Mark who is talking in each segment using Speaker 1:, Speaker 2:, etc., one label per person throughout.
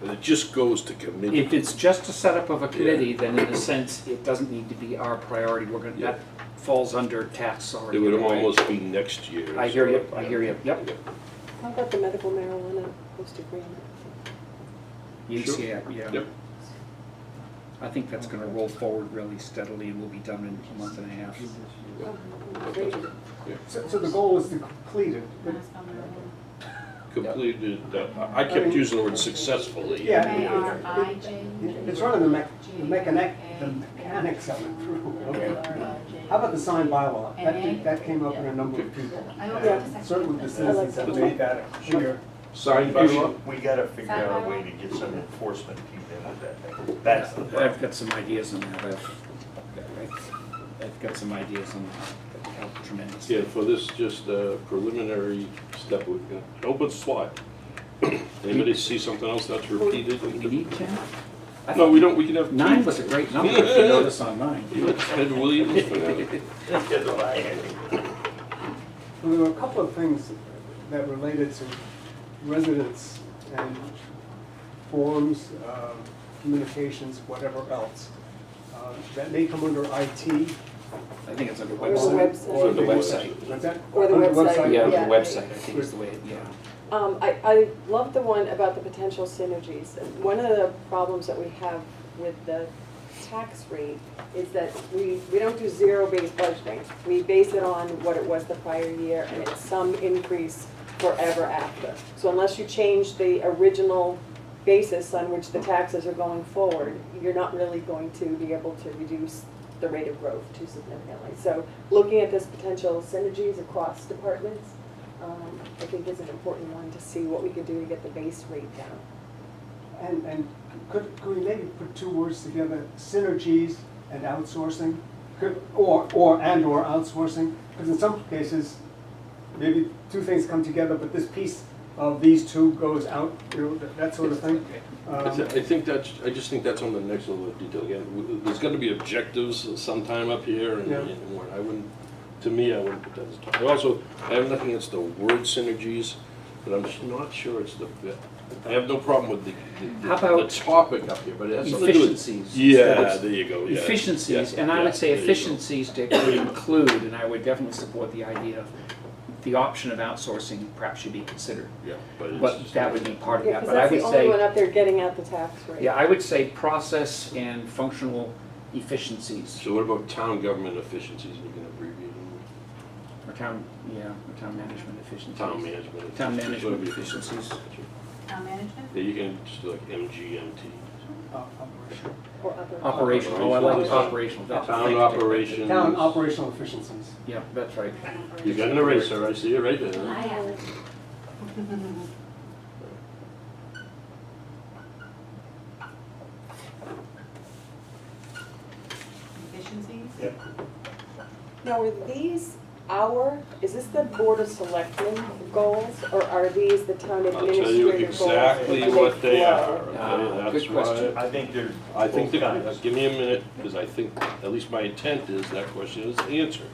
Speaker 1: But it just goes to committee.
Speaker 2: If it's just a setup of a committee, then in a sense, it doesn't need to be our priority. We're gonna, that falls under tax already.
Speaker 1: It would
Speaker 2: anyway.
Speaker 1: almost be next year.
Speaker 2: I hear you, I hear you, yep.
Speaker 3: How about the medical marijuana host agreement?
Speaker 1: Sure.
Speaker 2: Yeah, E yeah.
Speaker 1: Yep.
Speaker 2: I think that's gonna roll forward really steadily and we'll be done in a month and a half.
Speaker 3: Great.
Speaker 4: So, so the goal is to complete it, but,
Speaker 1: Completed, uh, I kept using the word successfully.
Speaker 4: Yeah.
Speaker 5: It's
Speaker 4: it's running the mech, the mechanic, the mechanics of it through. How about the signed bylaw? That, did- that came up in a number of people.
Speaker 5: Yeah.
Speaker 4: Certainly the citizens have made that clear.
Speaker 1: Signed by law.
Speaker 6: We gotta figure out a way to get some enforcement people in with that thing. That's the
Speaker 2: I've
Speaker 6: problem.
Speaker 2: got some ideas on that. I've, I've- I've got some ideas on that that help tremendously.
Speaker 1: Yeah, for this, just a preliminary step, uh, we've got an open slot. Anybody see something else that's repeated?
Speaker 2: Do we need ten? I
Speaker 1: No,
Speaker 2: thought
Speaker 1: we don't, we can have. two.
Speaker 2: Nine was a great number, if you notice on mine.
Speaker 1: You look Ted Williams for now.
Speaker 6: Get the line, I think.
Speaker 4: Well, There were a couple of things that related to residents and forums, uh, communications, whatever else, uh, that may come under IT.
Speaker 2: I think it's under
Speaker 3: Or the
Speaker 2: website.
Speaker 3: website.
Speaker 4: or
Speaker 1: the website.
Speaker 4: What's that?
Speaker 3: Or the
Speaker 4: Under
Speaker 3: website,
Speaker 2: Yeah,
Speaker 3: Yeah.
Speaker 2: the website, I think is the way, it- yeah.
Speaker 3: Um, I, I love the one about the potential synergies. And One of the problems that we have with the tax rate is that we, we don't do zero-based budgeting. We base it on what it was the prior year, and it's some increase forever after. So unless you change the original basis on which the taxes are going forward, you're not really going to be able to reduce the rate of growth too significantly. So looking at this potential synergies across departments, um, I think is an important one to see what we could do to get the base rate down.
Speaker 4: And, and could, could we maybe put two words together, synergies and outsourcing? Could, or, or, and/or outsourcing? Because in some cases, maybe two things come together, but this piece of these two goes out, you know, that- that sort of thing.
Speaker 1: I
Speaker 4: Um,
Speaker 1: thi- I think that's, I just think that's on the next level of detail. Again, w- there's gonna be objectives sometime up here and
Speaker 4: Yeah.
Speaker 1: and what I wouldn't, to me, I wouldn't put that as top. I also, I have nothing against the word synergies, but I'm just not sure it's the, fit. I have no problem with the, the-
Speaker 2: How
Speaker 1: the
Speaker 2: about
Speaker 1: the topic up here, but it has something to do with.
Speaker 2: Efficiencies.
Speaker 1: Yeah, there you go, Oh, yeah.
Speaker 2: Efficiencies,
Speaker 1: Yeah,
Speaker 2: and I
Speaker 1: yeah,
Speaker 2: would say
Speaker 1: there you go.
Speaker 2: efficiencies to include, and I would definitely support the idea of the option of outsourcing perhaps should be considered.
Speaker 1: Yeah, but it's
Speaker 2: But
Speaker 1: just-
Speaker 2: that would be part of
Speaker 3: Yeah,
Speaker 2: that,
Speaker 3: because
Speaker 2: but I
Speaker 3: that's the
Speaker 2: would
Speaker 3: only one
Speaker 2: say,
Speaker 3: up there getting out the tax rate.
Speaker 2: yeah, I would say process and functional efficiencies.
Speaker 1: So what about town government efficiencies, we can abbreviate them,
Speaker 2: Or town, yeah, or town management efficiencies.
Speaker 1: town management.
Speaker 2: Town
Speaker 1: efficiencies,
Speaker 2: management
Speaker 1: whatever you-
Speaker 2: efficiencies.
Speaker 5: Town management?
Speaker 1: Yeah, you can just do like MGMT.
Speaker 4: uh, operation.
Speaker 3: Or other.
Speaker 2: Operational, oh, I like operational. that's-
Speaker 1: Town
Speaker 2: thank you.
Speaker 1: operations.
Speaker 4: Town operational efficiencies.
Speaker 2: Yeah, that's right.
Speaker 1: You got an eraser, I see it right there.
Speaker 5: Efficiencies?
Speaker 6: Yep.
Speaker 3: Now, are these our, is this the Board of Selectmen goals, or are these the town
Speaker 1: I'll tell you
Speaker 3: administrator goals?
Speaker 1: exactly what they are,
Speaker 2: Ah,
Speaker 1: okay,
Speaker 2: good
Speaker 1: that's why.
Speaker 2: question.
Speaker 6: I think there's
Speaker 1: I think,
Speaker 6: both
Speaker 1: that-
Speaker 6: kinds.
Speaker 1: give me a minute, because I think, at least my intent is that question is answered.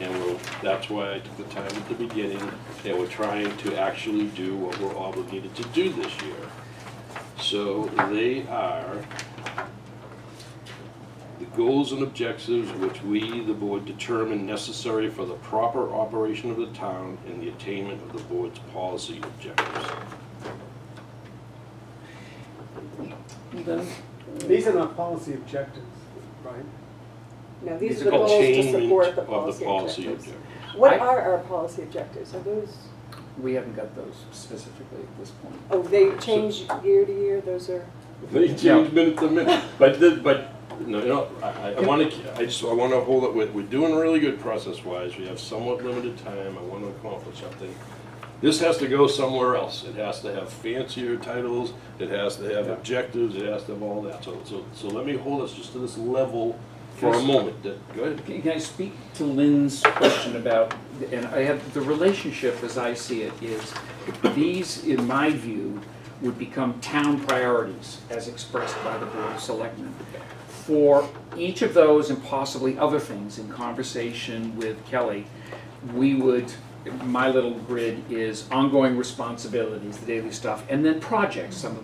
Speaker 1: And we'll, that's why I took the time at the beginning, that we're trying to actually do what we're obligated to do this year. So they are the goals and objectives which we, the board, determine necessary for the proper operation of the town and the attainment of the board's policy objectives.
Speaker 4: These are not policy objectives, right?
Speaker 3: No, these are the
Speaker 1: called
Speaker 3: goals to
Speaker 1: attainment
Speaker 3: support the
Speaker 1: Of the
Speaker 3: policy
Speaker 1: policy
Speaker 3: objectives.
Speaker 1: objectives.
Speaker 3: What
Speaker 2: I-
Speaker 3: are our policy objectives? Are those,
Speaker 2: We haven't got those specifically at this point.
Speaker 3: oh, they change year to year, those are,
Speaker 1: They change minute to minute, but the, but, no, you know, I, I- I wanna, I just, I wanna hold it, we're, we're doing really good process-wise, we have somewhat limited time, I wanna accomplish something. This has to go somewhere else, it has to have fancier titles, it has to have objectives, it has to have all that, so, so, so let me hold us just to this level for a
Speaker 2: Yes.
Speaker 1: moment, That- go ahead.
Speaker 2: Can can I speak to Lynn's question about, and I have, the relationship as I see it is, these, in my view, would become town priorities as expressed by the Board of Selectmen. For each of those and possibly other things, in conversation with Kelly, we would, my little grid is ongoing responsibilities, the daily stuff, and then projects, some of